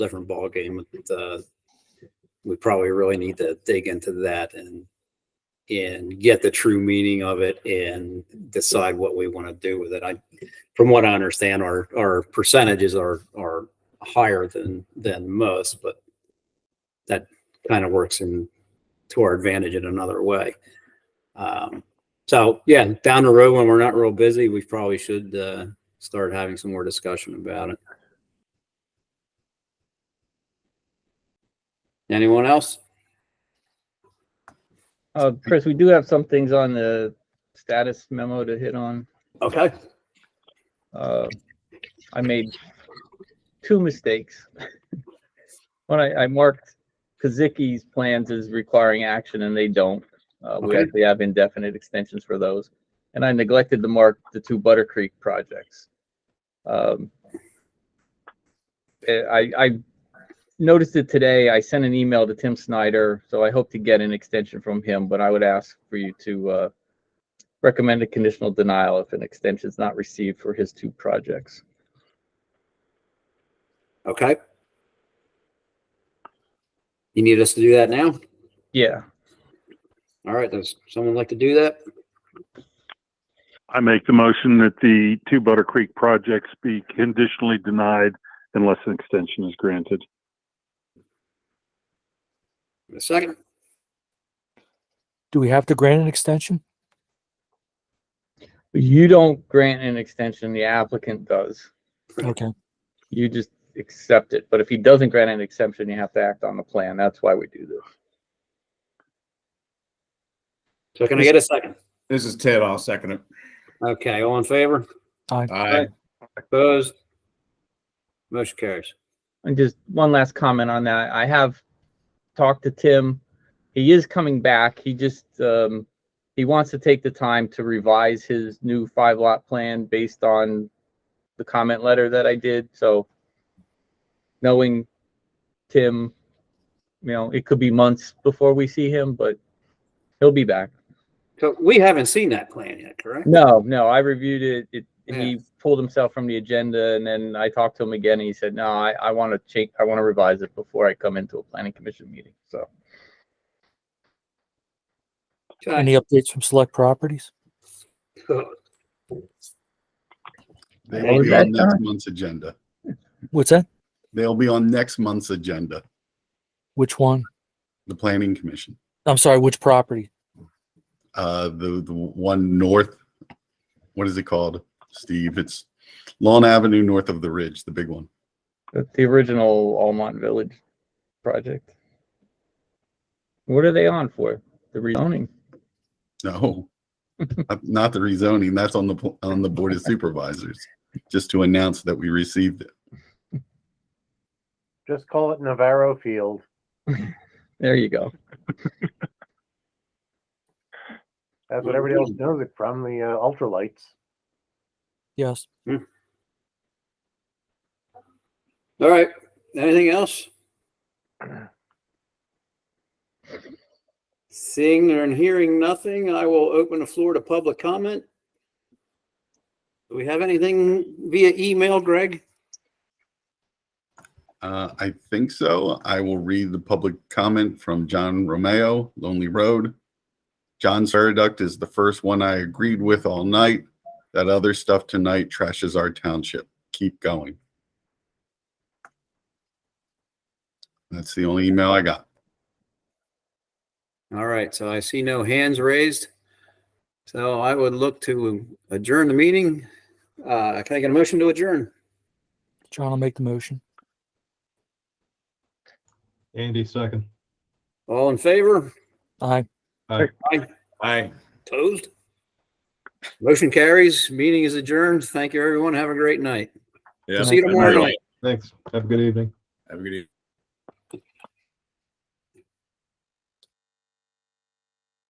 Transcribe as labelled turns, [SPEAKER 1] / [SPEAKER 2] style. [SPEAKER 1] different ballgame. Uh, we probably really need to dig into that and and get the true meaning of it and decide what we want to do with it. I, from what I understand, our our percentages are are higher than than most, but that kind of works in to our advantage in another way. Um, so yeah, down the road when we're not real busy, we probably should uh, start having some more discussion about it. Anyone else?
[SPEAKER 2] Uh, Chris, we do have some things on the status memo to hit on.
[SPEAKER 1] Okay.
[SPEAKER 2] Uh, I made two mistakes. When I, I marked Kaziki's plans as requiring action and they don't. Uh, we
[SPEAKER 1] Okay.
[SPEAKER 2] actually have indefinite extensions for those. And I neglected to mark the two Butter Creek projects. Um, eh, I, I noticed it today. I sent an email to Tim Snyder, so I hope to get an extension from him, but I would ask for you to, uh, recommend a conditional denial if an extension is not received for his two projects.
[SPEAKER 1] Okay. You need us to do that now?
[SPEAKER 2] Yeah,
[SPEAKER 1] All right. Does someone like to do that?
[SPEAKER 3] I make the motion that the two Butter Creek projects be conditionally denied unless an extension is granted.
[SPEAKER 1] A second?
[SPEAKER 4] Do we have to grant an extension?
[SPEAKER 2] you don't grant an extension, the applicant does.
[SPEAKER 4] Okay,
[SPEAKER 2] You just accept it, but if he doesn't grant an exception, you have to act on the plan. That's why we do this.
[SPEAKER 1] So can I get a second?
[SPEAKER 5] This is Ted. I'll second it.
[SPEAKER 1] Okay. All in favor?
[SPEAKER 5] Aye.
[SPEAKER 1] Opposed? Motion carries.
[SPEAKER 2] And just one last comment on that. I have talked to Tim. He is coming back. He just, um, he wants to take the time to revise his new five lot plan based on the comment letter that I did. So knowing Tim, you know, it could be months before we see him, but he'll be back.
[SPEAKER 1] So we haven't seen that plan yet, correct?
[SPEAKER 2] No, no, I reviewed it. It, he pulled himself from the agenda and then I talked to him again and he said, no, I, I want to change, I want to revise it before I come into a planning commission meeting. So
[SPEAKER 1] Okay.
[SPEAKER 4] any updates from select properties?
[SPEAKER 5] They
[SPEAKER 2] What
[SPEAKER 5] will
[SPEAKER 2] was
[SPEAKER 5] be on
[SPEAKER 2] that,
[SPEAKER 5] next
[SPEAKER 2] John?
[SPEAKER 5] month's agenda.
[SPEAKER 4] What's that?
[SPEAKER 5] They'll be on next month's agenda,
[SPEAKER 4] Which one?
[SPEAKER 5] the planning commission.
[SPEAKER 4] I'm sorry, which property?
[SPEAKER 5] Uh, the, the one north, what is it called, Steve? It's Lawn Avenue north of the ridge, the big one.
[SPEAKER 2] that's the original Almont Village project. What are they on for? The rezoning?
[SPEAKER 5] No. Not- Not the rezoning. That's on the, pl- on the board of supervisors, just to announce that we received it.
[SPEAKER 6] Just call it Navarro Field.
[SPEAKER 2] There you go.
[SPEAKER 6] That's what everybody else knows it from, the uh, ultralights.
[SPEAKER 4] Yes.
[SPEAKER 1] All right. Anything else? Seeing and hearing nothing, I will open the floor to public comment. Do we have anything via email, Greg?
[SPEAKER 5] Uh, I think so. I will read the public comment from John Romeo, Lonely Road. John Saraduct is the first one I agreed with all night. That other stuff tonight trashes our township. Keep going. That's the only email I got.
[SPEAKER 1] All right, so I see no hands raised. So I would look to adjourn the meeting. Uh, can I get a motion to adjourn?
[SPEAKER 4] John will make the motion.
[SPEAKER 7] Andy, second.
[SPEAKER 1] All in favor?
[SPEAKER 4] Aye.
[SPEAKER 5] Aye.
[SPEAKER 1] Opposed? Motion carries. Meeting is adjourned. Thank you, everyone. Have a great night. See you tomorrow night.
[SPEAKER 7] Thanks. Have a good evening.
[SPEAKER 5] Have a good evening.